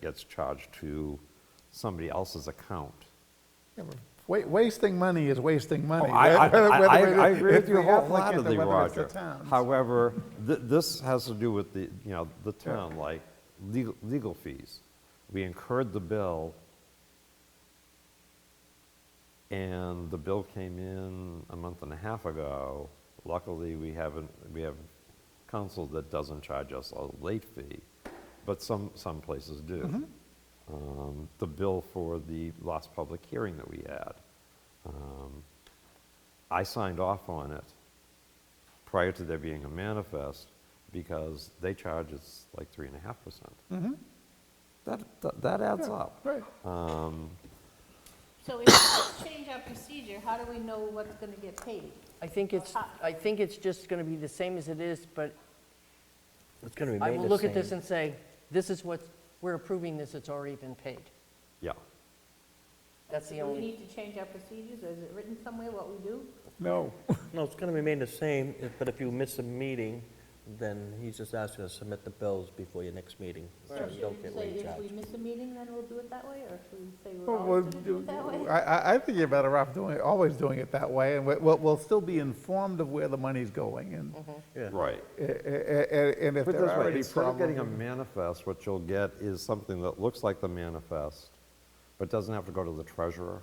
gets charged to somebody else's account. Yeah, but wa- Wasting money is wasting money. Oh, I- I- whether- I- whether I- it- I agree it's with you the applicant or wholeheartedly, whether it's the Roger. town's. However, th- this has to do with the, you know, the town, like legal legal fees. We incurred the bill, and the bill came in a month and a half ago. Luckily, we haven't, we have counsel that doesn't charge us a late fee, but some, some places Mm-hmm. do. Um, The bill for the last public hearing that we had. um, I signed off on it prior to there being a manifest because they charge us like three and a half percent. That, that- that adds up. Mm-hmm. Right. So if we change our procedure, how do we know what's going to get paid? I think it's, I think it's just going to be the same as it is, but It's going to I remain the will same. look at this and say, this is what, we're approving this, it's already been paid. Yeah. That's the Do we only, need to change our procedures, or is it written somewhere what we do? No, No, it's going to remain the same, if- but if you miss a meeting, then he's just asking to submit the bills before your next meeting. so So you should don't we get say late if charge. we miss a meeting, then we'll do it that way, or should we say we're Well, we'll always going to do do- it that way? I, I- I think you're better off doing, it- always doing it that way, and we- we'll, we'll still be informed of where the money's going, and, Yeah. Right. a- a- a- and if Put it there this are way, any instead of getting a problems. manifest, what you'll get is something that looks like the manifest, but doesn't have to go to the treasurer.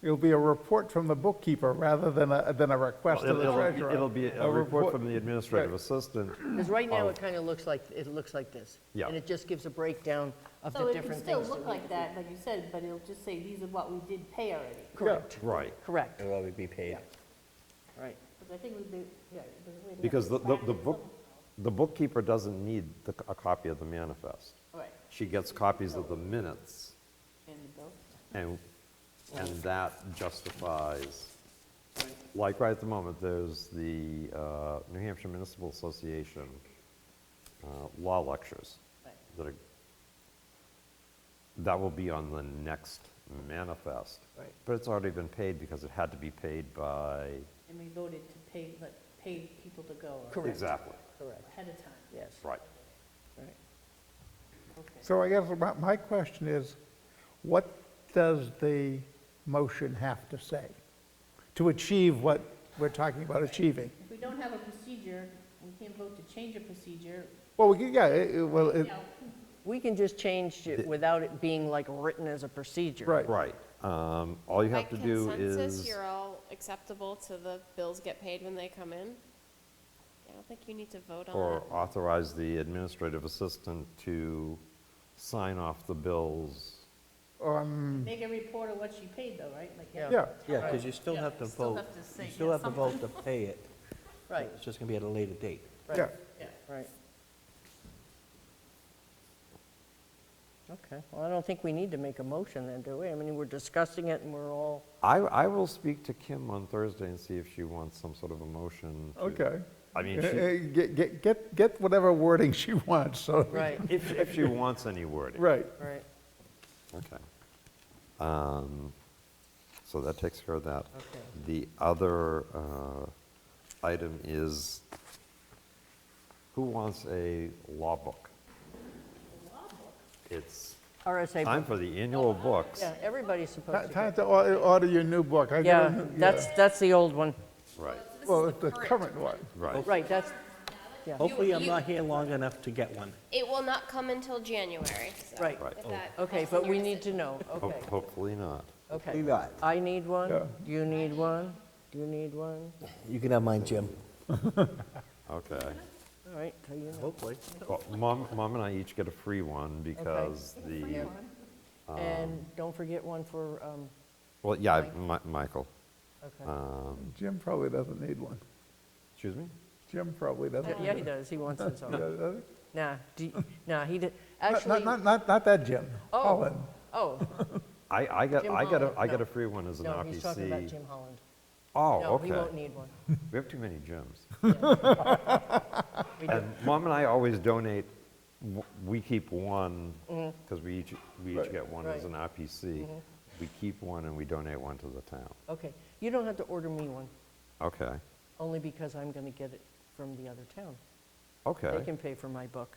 It'll be a report from the bookkeeper rather than a, than a request to It'll- the it'll- treasurer. It'll be a report from the administrative assistant. because right now, it kind of looks like, it looks like this. Yeah. And it just gives a breakdown of So the it can different still things. look that we- like that, like you said, but it'll just say, these are what we did pay already. Correct, Right. correct, It'll already be paid. right. Because I think we did, yeah. it was written Because the, up. the the book, the bookkeeper doesn't need the, a copy of the manifest. Right, She gets copies of the minutes. in the bill. And, and that justifies, like right at the moment, there's the uh, New Hampshire Municipal Association uh, law lectures Right. that are, that will be on the next manifest. Right. But it's already been paid because it had to be paid by. And we voted to pay, let, pay people to go or Correct. Exactly, Correct, ahead of time. yes, right. right. Okay. So I guess my, my question is, what does the motion have to say to achieve what we're talking about achieving? If we don't have a procedure, we can't vote to change a procedure, Well, we, could- yeah, it- it- well, you it, know, We can just change it without it being like written as a procedure. right. Right. Um, All you By have to do is. consensus, you're all acceptable to the bills get paid when they come in? I don't think you need to vote on Or it. authorize the administrative assistant to sign off the bills. make a report of what she paid though, right? Like, Yeah. Um, Yeah, Yeah, because you still Yeah, have to you still vote. have to say, You still yeah, have to vote to pay it. Right, It's just going to be at a later date. yeah. Yeah. right. Okay, well, I don't think we need to make a motion then, do we? I mean, we're discussing it and we're all, I, I will speak to Kim on Thursday and see if she wants some sort of a motion. to- Okay. I mean, Uh, uh, she- Get, get- get, get whatever wording she wants, so. right, if, if she wants any wording. Right. right, Okay. Um, So that takes care of that. Okay. The other uh, item is, who wants a law book? It's RSA. time for the annual books. Yeah, everybody's supposed Ti- to Time get. to or- order your new book. I got a Yeah, new- that's, that's the old one, Right, Well, it's the current one. right. right, that's, Hopefully, I'm you- not here long enough to get one. It will not come until January, so right. Right. Oh, if that Okay, helps in but your we need decision. to know, Ho- okay, Hopefully not. okay. not. I need Yeah. one, you need one, you need one, You can have mine, Jim. Okay. all right, so you know. Hopefully. Well, Mom, Mom and I each get a free one because the, Uh, And don't forget one for, um, well, yeah, Mi- Michael. okay. uh, Jim probably doesn't need one. Excuse me? Jim probably doesn't. Yeah, he does, he wants his own. does. does he? Nah, do you- nah, he did, uh, Not- Not, actually, not, not, not that Jim. Oh. Holland. oh, I, I got, Jim I got a, Holland, I got no. a free one as an no, he's talking about RPC. Jim Holland. Oh, No, he won't okay. need one. We have too many gyms. We do- And Mom and I always donate, w- we keep one, because we each, we each Right. get one as Mm-hmm. Right. Mm-hmm. an RPC. We keep one and we donate one to the town. Okay, you don't have to order me one, Okay. only because I'm going to get it from the other town. Okay. They can pay for my book.